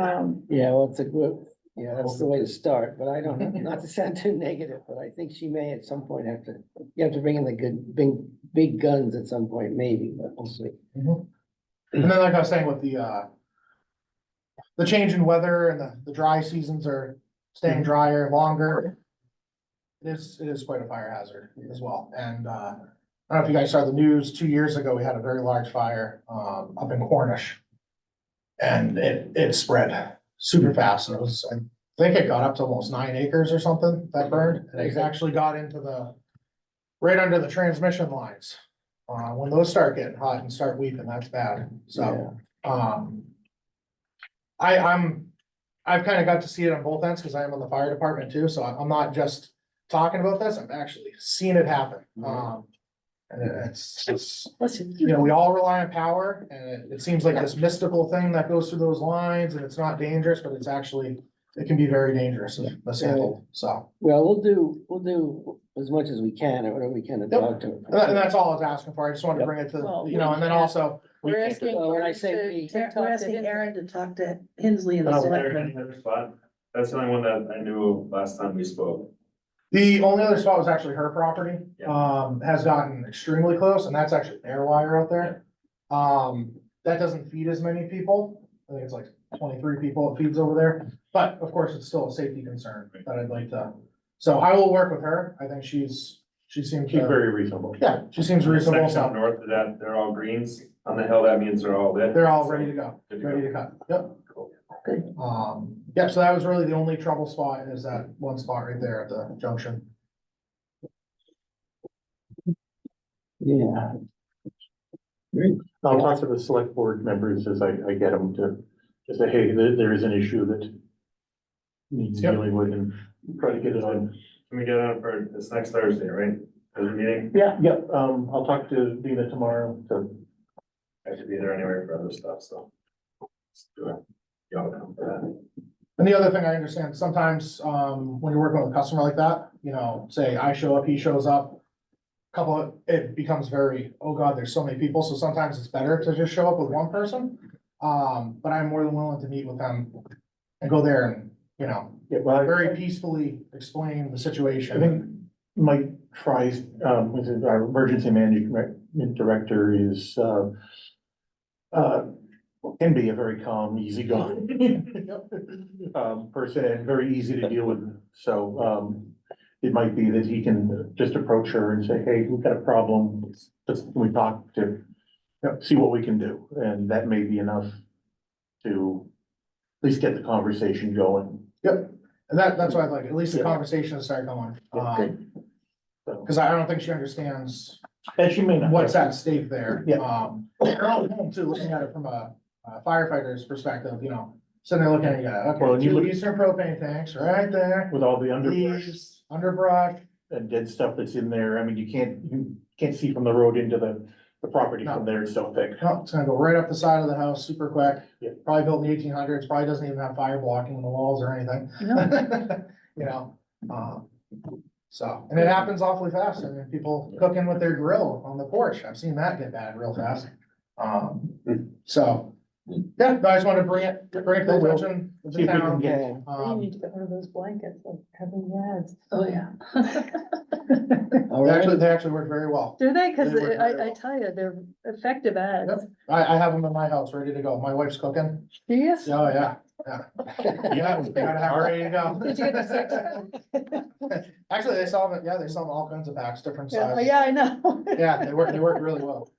Um, Yeah, well, it's a good, yeah, that's the way to start, but I don't, know, not to sound too negative, but I think she may at some point have to, you have to bring in the good, big, big guns at some point, maybe, but we'll see. Mhm. And then like I was saying with the, uh, the change in weather and the, the dry seasons are staying drier longer. It is, it is quite a fire hazard as well. And, uh, I don't know if you guys saw the news, two years ago, we had a very large fire, um, up in Cornish. And it, it spread super fast. And it was, I think it got up to almost nine acres or something that burned. And it actually got into the, right under the transmission lines. Uh, when those start getting hot and start weeping, that's bad, so, um. I, I'm, I've kind of got to see it on both ends, because I am on the fire department too, so I'm I'm not just talking about this, I'm actually seeing it happen, um. And it's, it's, listen, you know, we all rely on power, and it, it seems like this mystical thing that goes through those lines, and it's not dangerous, but it's actually, it can be very dangerous if mishandled, so. Well, we'll do, we'll do as much as we can, or whatever we can to talk to And that- and her. that's all I was asking for, I just wanted to bring it to, you know, and then also. we we're can't- asking. Well, when I Aaron say to- we- to We're talk we're to asking Hinton. Aaron to talk to Hensley and Oh, the there select. there any other spot? That's the only one that I knew of last time we spoke. The only other spot was actually her property, Yeah. um, has gotten extremely close, and that's actually air wire out there. Um, that doesn't feed as many people, I think it's like twenty-three people it feeds over there, but of course, it's still a safety concern that I'd like to. So I will work with her, I think she's, she seems, Keep to- very reasonable. yeah, she seems reasonable, Section so North of that, they're all greens. On the hill, that means they're all lit. they're all ready to go, Good to ready go. to cut, yep. Cool. Um, yeah, so that was really the only trouble spot is that one spot right there at the junction. Yeah, I'll talk to the select board members as I, I get them to, to say, hey, there, there is an issue that needs Yep. dealing with and try to get it on. Can we get on for this next Thursday, right? There's a meeting. Yeah, yeah, um, I'll talk to Dina tomorrow to I should be there anyway for other stuff, so. Let's do it. Y'all come for that. And the other thing I understand, sometimes, um, when you're working with a customer like that, you know, say I show up, he shows up. Couple, of- it becomes very, oh god, there's so many people, so sometimes it's better to just show up with one person. Um, but I'm more than willing to meet with them and go there and, you know, get by. very peacefully explain the I situation. think Mike tries, um, was it our emergency management director is, uh, uh, can be a very calm, easygoing um, person and very easy to deal with. So, um, it might be that he can just approach her and say, hey, we've got a problem. Let's, can we talk to, you know, see what we can do? And that may be enough to at least get the conversation going. And that, that's why I'd like, at least the Yeah. conversation to start going, Yeah, um, So, cause I don't think she understands and she may not. what's at stake there. Yeah. Um, they're all home too, looking at it from a a firefighter's perspective, you know, sitting there looking at you, Well, okay, and you two look- Eastern propane tanks right there. With all the underbrush. Leaves, underbrush, and dead stuff that's in there. I mean, you can't, you can't see from the road into the, the property No. from there. It's so thick. no, it's gonna go right up the side of the house super quick. Yeah. Probably built in the eighteen hundreds, probably doesn't even have fire blocking in the walls or anything, No, you know, um. So, and it happens awfully fast, I mean, people cooking with their grill on the porch, I've seen that get bad real fast. Um, so, yeah, I just wanted to bring it, bring it to the attention. of See the if we can town. yeah, You Um, need to get one of those blankets like having lads. Oh, yeah. all they right, actually, they actually work very well. Do they? Cause They work very I, I well. tell you, they're effective ads. I, I have them in my house ready to go. My wife's cooking. Yes. Oh, yeah, yeah. Yeah, we gotta have it ready to Did you get the six go. pack? Actually, they sell them, yeah, they sell them all kinds of packs, different Yeah, oh, sizes. Yeah, I know. Yeah, they work, they work really well.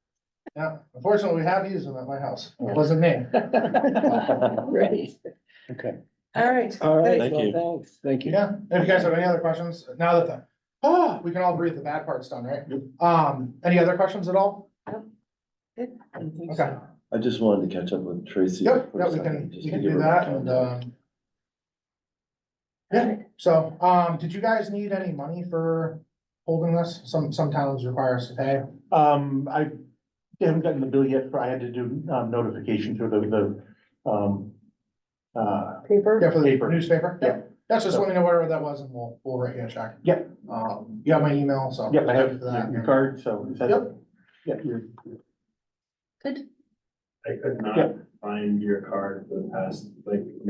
Yeah, unfortunately, we have used them at my house. It wasn't me. Right. okay. All right. All right, Thank well, thanks, thank you. Yeah, if you guys have any other questions, now that the, oh, we can all breathe, the bad part's done, right? Um, any other questions at all? Okay. I just wanted to catch up with Tracy. Yep, for a yeah, we second, can, just we to can give do her that and, context. um. Yeah, so, um, did you guys need any money for holding this? Some, some towns require us to pay. Um, I haven't gotten the bill yet, but I had to do, um, notification through the, the, um, uh, Yeah, Paper. for the Paper. newspaper. Yeah. That's just let me know whatever that was and we'll, we'll write you a check. Yeah. Um, you have my email, so. yeah, I have for that. your your card, so is that? Yep. Yeah, your, Good. I could Yeah. not find your card for the past, like,